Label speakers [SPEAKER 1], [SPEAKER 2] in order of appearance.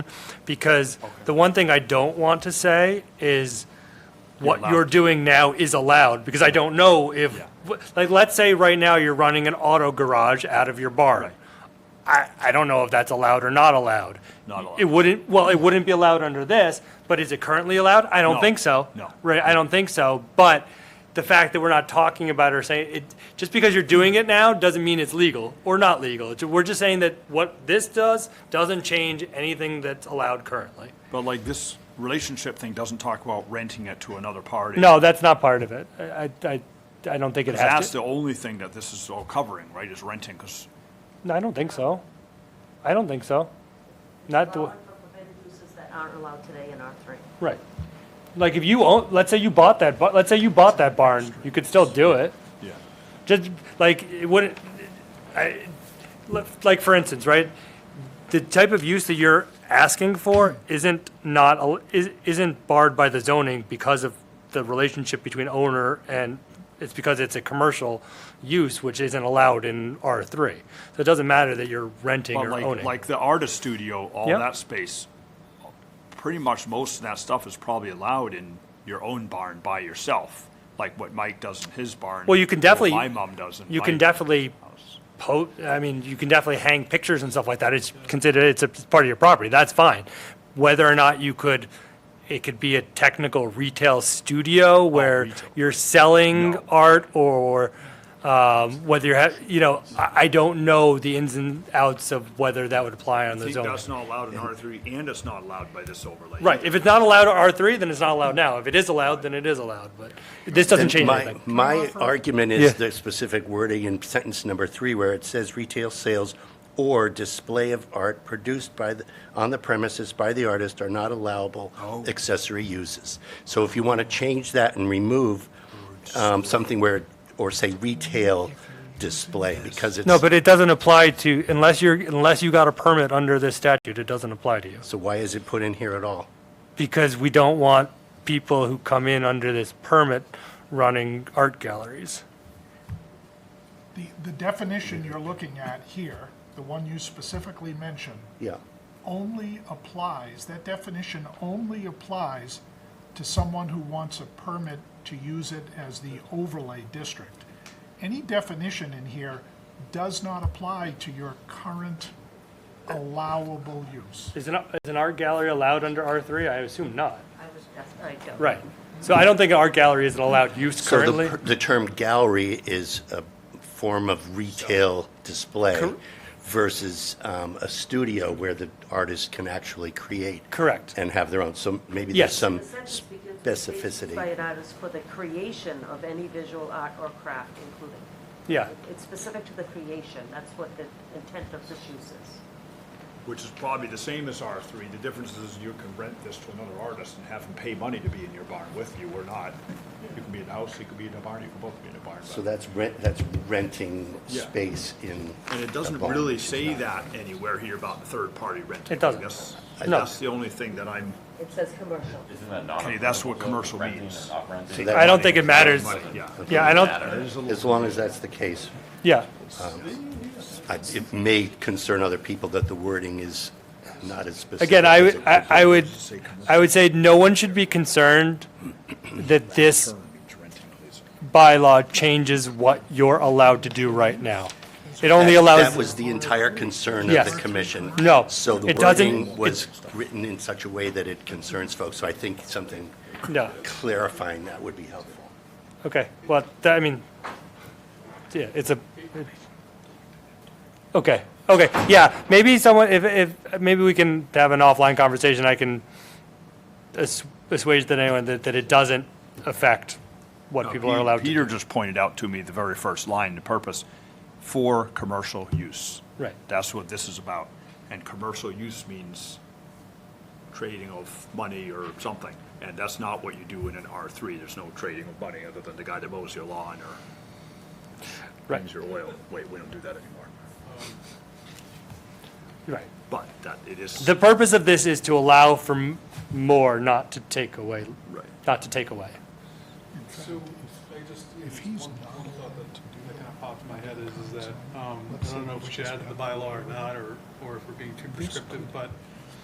[SPEAKER 1] because the one thing I don't want to say is what you're doing now is allowed, because I don't know if, like, let's say right now you're running an auto garage out of your barn. I, I don't know if that's allowed or not allowed.
[SPEAKER 2] Not allowed.
[SPEAKER 1] It wouldn't, well, it wouldn't be allowed under this, but is it currently allowed? I don't
[SPEAKER 2] No,
[SPEAKER 1] think so.
[SPEAKER 2] no.
[SPEAKER 1] Right, I don't think so, but the fact that we're not talking about or saying, it, just because you're doing it now doesn't mean it's legal or not legal. It's- We're just saying that what this does doesn't change anything that's allowed currently.
[SPEAKER 2] But like this relationship thing doesn't talk about renting it to another party.
[SPEAKER 1] No, that's not part of it. I, I, I don't think it has
[SPEAKER 2] That's
[SPEAKER 1] to.
[SPEAKER 2] the only thing that this is all covering, right, is renting, because
[SPEAKER 1] No, I don't think so. I don't think so. Not the,
[SPEAKER 3] allowing for permitted uses that aren't allowed today in R3.
[SPEAKER 1] right. Like if you own, let's say you bought that, bu- let's say you bought that barn, you could still do it.
[SPEAKER 2] Yeah.
[SPEAKER 1] Just, like, it wouldn't, I, like, for instance, right? The type of use that you're asking for isn't not, al- is- isn't barred by the zoning because of the relationship between owner and, it's because it's a commercial use, which isn't allowed in R3. So it doesn't matter that you're renting
[SPEAKER 2] But
[SPEAKER 1] or
[SPEAKER 2] like,
[SPEAKER 1] owning.
[SPEAKER 2] like the artist studio, all
[SPEAKER 1] Yep.
[SPEAKER 2] that space, pretty much most of that stuff is probably allowed in your own barn by yourself, like what Mike does in his barn.
[SPEAKER 1] Well, you can
[SPEAKER 2] or
[SPEAKER 1] definitely-
[SPEAKER 2] My mom does in
[SPEAKER 1] You
[SPEAKER 2] my
[SPEAKER 1] can definitely
[SPEAKER 2] house.
[SPEAKER 1] po, I mean, you can definitely hang pictures and stuff like that. It's considered, it's a it's part of your property. That's fine. Whether or not you could, it could be a technical retail studio where
[SPEAKER 2] Oh, retail.
[SPEAKER 1] you're selling
[SPEAKER 2] No.
[SPEAKER 1] art or, um, whether you're, ha- you know, I, I don't know the ins and outs of whether that would apply on
[SPEAKER 2] I
[SPEAKER 1] the
[SPEAKER 2] think
[SPEAKER 1] zoning.
[SPEAKER 2] that's not allowed in R three, and it's not allowed by this overlay.
[SPEAKER 1] Right. If it's not allowed at R three, then it's not allowed now. If it is allowed, then it is allowed, but this doesn't
[SPEAKER 4] And
[SPEAKER 1] change
[SPEAKER 4] My,
[SPEAKER 1] anything.
[SPEAKER 4] my argument
[SPEAKER 1] Yeah.
[SPEAKER 4] is the specific wording in sentence number three where it says retail sales or display of art produced by, the on the premises by the artist are not allowable accessory uses. So if you want to change that and remove um, something where, or say retail display, because it's.
[SPEAKER 1] No, but it doesn't apply to, unless you're, unless you got a permit under this statute, it doesn't apply to you.
[SPEAKER 4] So why is it put in here at all?
[SPEAKER 1] because we don't want people who come in under this permit running art galleries.
[SPEAKER 5] The, the definition you're looking at here, the one you specifically mentioned,
[SPEAKER 4] Yeah.
[SPEAKER 5] only applies, that definition only applies to someone who wants a permit to use it as the overlay district. Any definition in here does not apply to your current allowable use.
[SPEAKER 1] Is an, is an art gallery allowed under R3? I assume not.
[SPEAKER 3] I was, that's, I don't.
[SPEAKER 1] Right. So I don't think an art gallery is an allowed use
[SPEAKER 4] So the
[SPEAKER 1] currently.
[SPEAKER 4] per- The term gallery is a form of retail display versus um, a studio where the artist can actually create.
[SPEAKER 1] Correct.
[SPEAKER 4] And have their own, so maybe
[SPEAKER 1] Yes.
[SPEAKER 4] there's some
[SPEAKER 3] The sentence begins with "Creations By
[SPEAKER 4] specificity.
[SPEAKER 3] an artist for the creation of any visual art or craft, including.
[SPEAKER 1] Yeah.
[SPEAKER 3] It's specific to the creation, that's what the intent of this use is.
[SPEAKER 2] Which is probably the same as R three, the difference is you can rent this to another artist and have them pay money to be in your barn with you or not. You can be in a house, you can be in a barn, you can both be in a barn.
[SPEAKER 4] So
[SPEAKER 2] but-
[SPEAKER 4] that's rent, that's renting
[SPEAKER 2] Yeah.
[SPEAKER 4] space in.
[SPEAKER 2] And it doesn't
[SPEAKER 4] a barn,
[SPEAKER 2] really
[SPEAKER 4] which is
[SPEAKER 2] say
[SPEAKER 4] not-
[SPEAKER 2] that anywhere here about third-party renting.
[SPEAKER 1] It doesn't.
[SPEAKER 2] That's,
[SPEAKER 1] No.
[SPEAKER 2] that's the only thing that I'm,
[SPEAKER 3] It says commercial.
[SPEAKER 6] Isn't that not?
[SPEAKER 2] Okay, that's what
[SPEAKER 6] renting
[SPEAKER 2] commercial
[SPEAKER 6] and
[SPEAKER 2] means.
[SPEAKER 6] not renting?
[SPEAKER 4] So that-
[SPEAKER 1] I don't think it matters.
[SPEAKER 2] Money, yeah.
[SPEAKER 1] Yeah, I don't,
[SPEAKER 4] As long as that's the case,
[SPEAKER 1] yeah.
[SPEAKER 4] I- it may concern other people that the wording is not as specific.
[SPEAKER 1] Again, I,
[SPEAKER 4] as
[SPEAKER 1] would-
[SPEAKER 4] it
[SPEAKER 1] I I would,
[SPEAKER 2] Say commercial.
[SPEAKER 1] I would say no one should be concerned that this
[SPEAKER 2] Term means renting, please.
[SPEAKER 1] bylaw changes what you're allowed to do right now. It only
[SPEAKER 4] That-
[SPEAKER 1] allows.
[SPEAKER 4] That was the entire concern of
[SPEAKER 1] Yes.
[SPEAKER 4] the commission.
[SPEAKER 1] No,
[SPEAKER 4] So the
[SPEAKER 1] it doesn't-
[SPEAKER 4] wording was written in such a way that it concerns folks, so I think something
[SPEAKER 1] No.
[SPEAKER 4] clarifying that would be helpful.
[SPEAKER 1] Okay, well, th- I mean, yeah, it's a, it- okay, okay, yeah, maybe someone, if, if, maybe we can have an offline conversation, I can assu- assuage that anyone that, that it doesn't affect what people are allowed to.
[SPEAKER 2] Uh, Peter just pointed out to me the very first line, the purpose, for commercial use.
[SPEAKER 1] Right.
[SPEAKER 2] That's what this is about. And commercial use means trading of money or something. And that's not what you do in an R3. There's no trading of money other than the guy that mows your lawn or
[SPEAKER 1] Right.
[SPEAKER 2] brings your oil. Wait, we don't do that anymore.
[SPEAKER 1] Right.
[SPEAKER 2] But that, it is,
[SPEAKER 1] The purpose of this is to allow for m- more, not to take away,
[SPEAKER 2] Right.
[SPEAKER 1] not to take away.
[SPEAKER 7] So, I just, one one thought that kind of popped in my head is, is that, um, I don't know if we should add to the bylaw or not, or, or if we're being too prescriptive, but